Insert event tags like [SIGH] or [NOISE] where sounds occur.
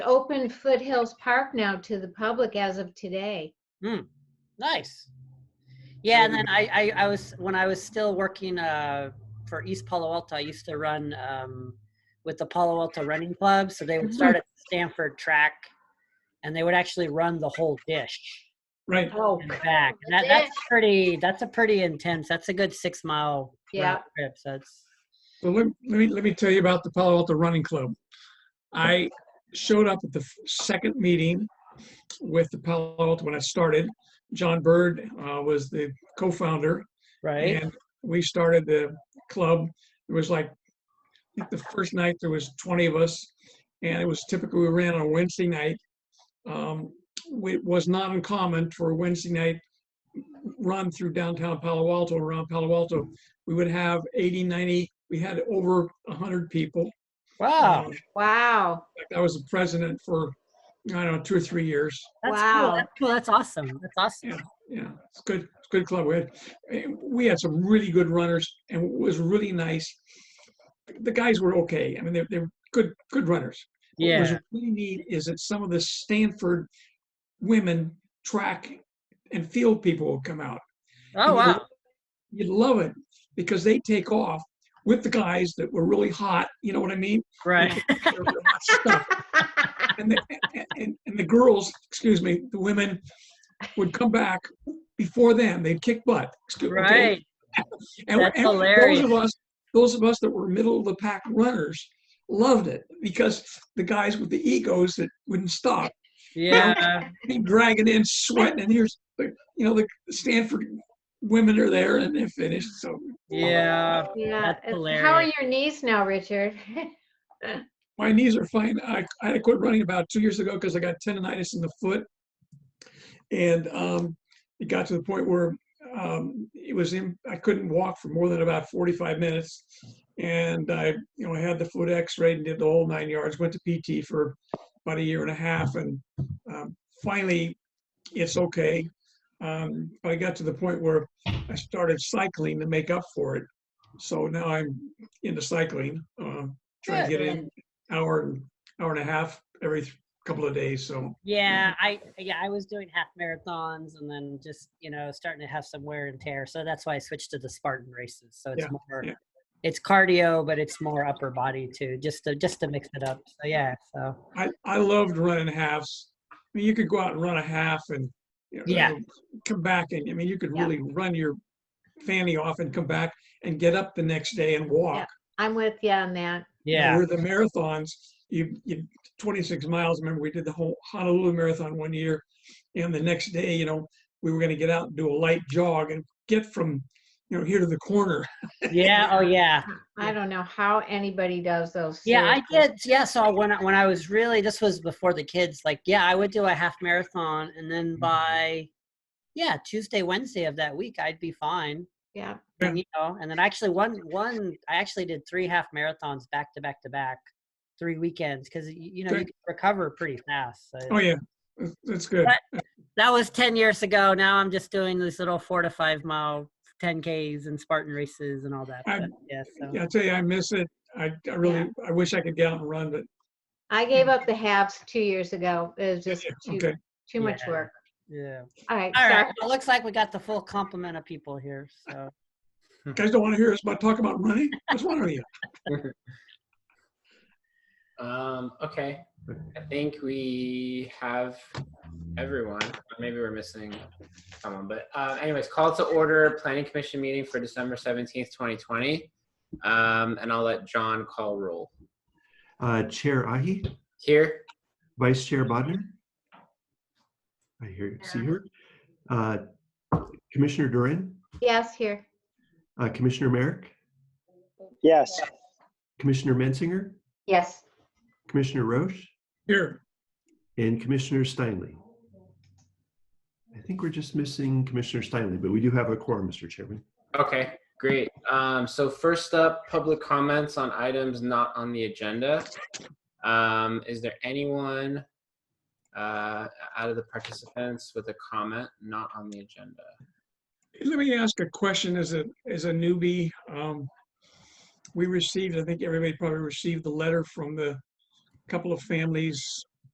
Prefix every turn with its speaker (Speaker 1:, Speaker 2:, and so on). Speaker 1: open Foothills Park now to the public as of today.
Speaker 2: Nice. Yeah, and then I, I, I was when I was still working uh, for East Palo Alto. I used to run um, with the Palo Alto Running Club, so they would start at Stanford Track, and they would actually run the whole dish
Speaker 3: Right.
Speaker 1: Oh,
Speaker 2: and back. And That, that's pretty. That's a pretty intense. That's a good six mile
Speaker 1: Yeah.
Speaker 2: round trip. So that's
Speaker 3: Well, let, let me, let me tell you about the Palo Alto Running Club. I showed up at the f- second meeting with the Palo Alto when I started. John Bird uh, was the co-founder
Speaker 2: right.
Speaker 3: and we started the club. It was like, I think the first night there was 20 of us and it was typically, we ran on a Wednesday night. Um, It was not uncommon for a Wednesday night run through downtown Palo Alto, around Palo Alto. We would have 80, 90, we had over 100 people.
Speaker 2: Wow.
Speaker 3: Um,
Speaker 1: Wow.
Speaker 3: I was the president for, I don't know, two or three years.
Speaker 2: That's
Speaker 1: Wow.
Speaker 2: Cool. That's cool. That's awesome. That's awesome.
Speaker 3: Yeah, it's good, it's good club. We had, eh, we had some really good runners and it was really nice. The guys were okay. I mean, they're, they're good, good runners. What was
Speaker 2: Yeah.
Speaker 3: really neat is that some of the Stanford women track and field people will come out.
Speaker 2: Oh wow.
Speaker 3: You'd love it because they take off with the guys that were really hot. You know what I mean?
Speaker 2: Right.
Speaker 3: They're really hot stuff. and the, and, and the girls, excuse me, the women would come back before them. They'd kick butt. Excuse me, okay?
Speaker 2: Right.
Speaker 3: And,
Speaker 2: That's
Speaker 3: and
Speaker 2: hilarious.
Speaker 3: Those of us, those of us that were middle of the pack runners, loved it because the guys with the egos that wouldn't stop
Speaker 2: Yeah.
Speaker 3: came dragging in, sweating, and here's the, you know the Stanford women are there and they're finished. So
Speaker 2: Yeah.
Speaker 1: Yeah.
Speaker 2: That's
Speaker 1: it's- How are
Speaker 2: hilarious.
Speaker 1: your knees now,
Speaker 3: [LAUGHS]
Speaker 1: Richard?
Speaker 3: my knees are fine. I, I had to quit running about two years ago because I got tendonitis in the foot, and um, it got to the point where um, it was in, I couldn't walk for more than about 45 minutes, and I you know I had the foot X-rayed and did the whole nine yards. Went to PT for about a year and a half, and um, finally it's okay. Um, but I got to the point where I started cycling to make up for it. So now I'm into cycling, um, trying to
Speaker 2: Good.
Speaker 3: get in hour and hour and a half every th- couple of days. So
Speaker 2: Yeah,
Speaker 3: Mm-hmm.
Speaker 2: I yeah, I was doing half marathons and then just, you know, starting to have some wear and tear. So that's why I switched to the Spartan races. So it's
Speaker 3: Yeah,
Speaker 2: more
Speaker 3: yeah.
Speaker 2: it's cardio, but it's more upper body too, just to just to mix it up. So yeah, so
Speaker 3: I, I loved running halves. I mean, you could go out and run a half and you know,
Speaker 2: Yeah.
Speaker 3: come back and I mean you could
Speaker 1: Yeah.
Speaker 3: really run your fanny off and come back and get up the next day and walk.
Speaker 1: I'm with you on that.
Speaker 2: yeah.
Speaker 3: Where the marathons, you you 26 miles. Remember we did the whole Honolulu marathon one year, and the next day you know we were going to get out and do a light jog and get from you know here to the corner.
Speaker 2: Yeah, oh
Speaker 3: [LAUGHS]
Speaker 2: yeah.
Speaker 1: I don't know how anybody does those.
Speaker 2: Yeah, I
Speaker 1: seriously.
Speaker 2: did. Yeah, so when I, when I was really this was before the kids, like yeah, I would do a half marathon and then
Speaker 3: Mm-hmm.
Speaker 2: by yeah, Tuesday, Wednesday of that week, I'd be fine.
Speaker 1: Yeah.
Speaker 2: and, you know, and then I actually one one I actually did three half marathons back to back to back, three weekends because you know you
Speaker 3: Good.
Speaker 2: can recover pretty fast. So
Speaker 3: Oh yeah, that's- that's good.
Speaker 2: That- That was ten years ago. Now I'm just doing these little four to five mile ten ks and Spartan races and all that.
Speaker 3: I-
Speaker 2: But, yeah, so.
Speaker 3: Yeah, I tell you, I miss it. I, I really, I wish I could get out and run, but
Speaker 1: I gave
Speaker 2: Mm.
Speaker 1: up the halves two years ago. It was just too,
Speaker 3: okay.
Speaker 1: too much
Speaker 2: Yeah.
Speaker 1: work.
Speaker 2: yeah.
Speaker 1: All right.
Speaker 2: All
Speaker 1: sorry.
Speaker 2: right. Well, it looks like we got the full complement of people here. So
Speaker 3: You guys don't want to hear us about talk about running. What's wrong with you?
Speaker 4: Um, okay, I think we have everyone. Or Maybe we're missing someone, but uh, anyways, call to order planning commission meeting for December seventeenth, twenty twenty. Um, and I'll let John call roll.
Speaker 5: Uh, Chair Ahi,
Speaker 4: Here,
Speaker 5: Vice Chair Bodnar. I hear, see her. Uh, Commissioner Duran,
Speaker 1: Yes, here.
Speaker 5: uh, Commissioner Merrick,
Speaker 6: Yes,
Speaker 5: Commissioner Mensinger,
Speaker 1: Yes.
Speaker 5: Commissioner Roche,
Speaker 3: Here,
Speaker 5: and Commissioner Steinle. I think we're just missing Commissioner Steinle, but we do have a quorum, Mr. Chairman.
Speaker 4: okay, great. Um, so first up, public comments on items not on the agenda. Um, is there anyone uh, out of the participants with a comment not on the agenda?
Speaker 3: let me ask a question as a, as a newbie. Um, we received, I think everybody probably received the letter from the couple of families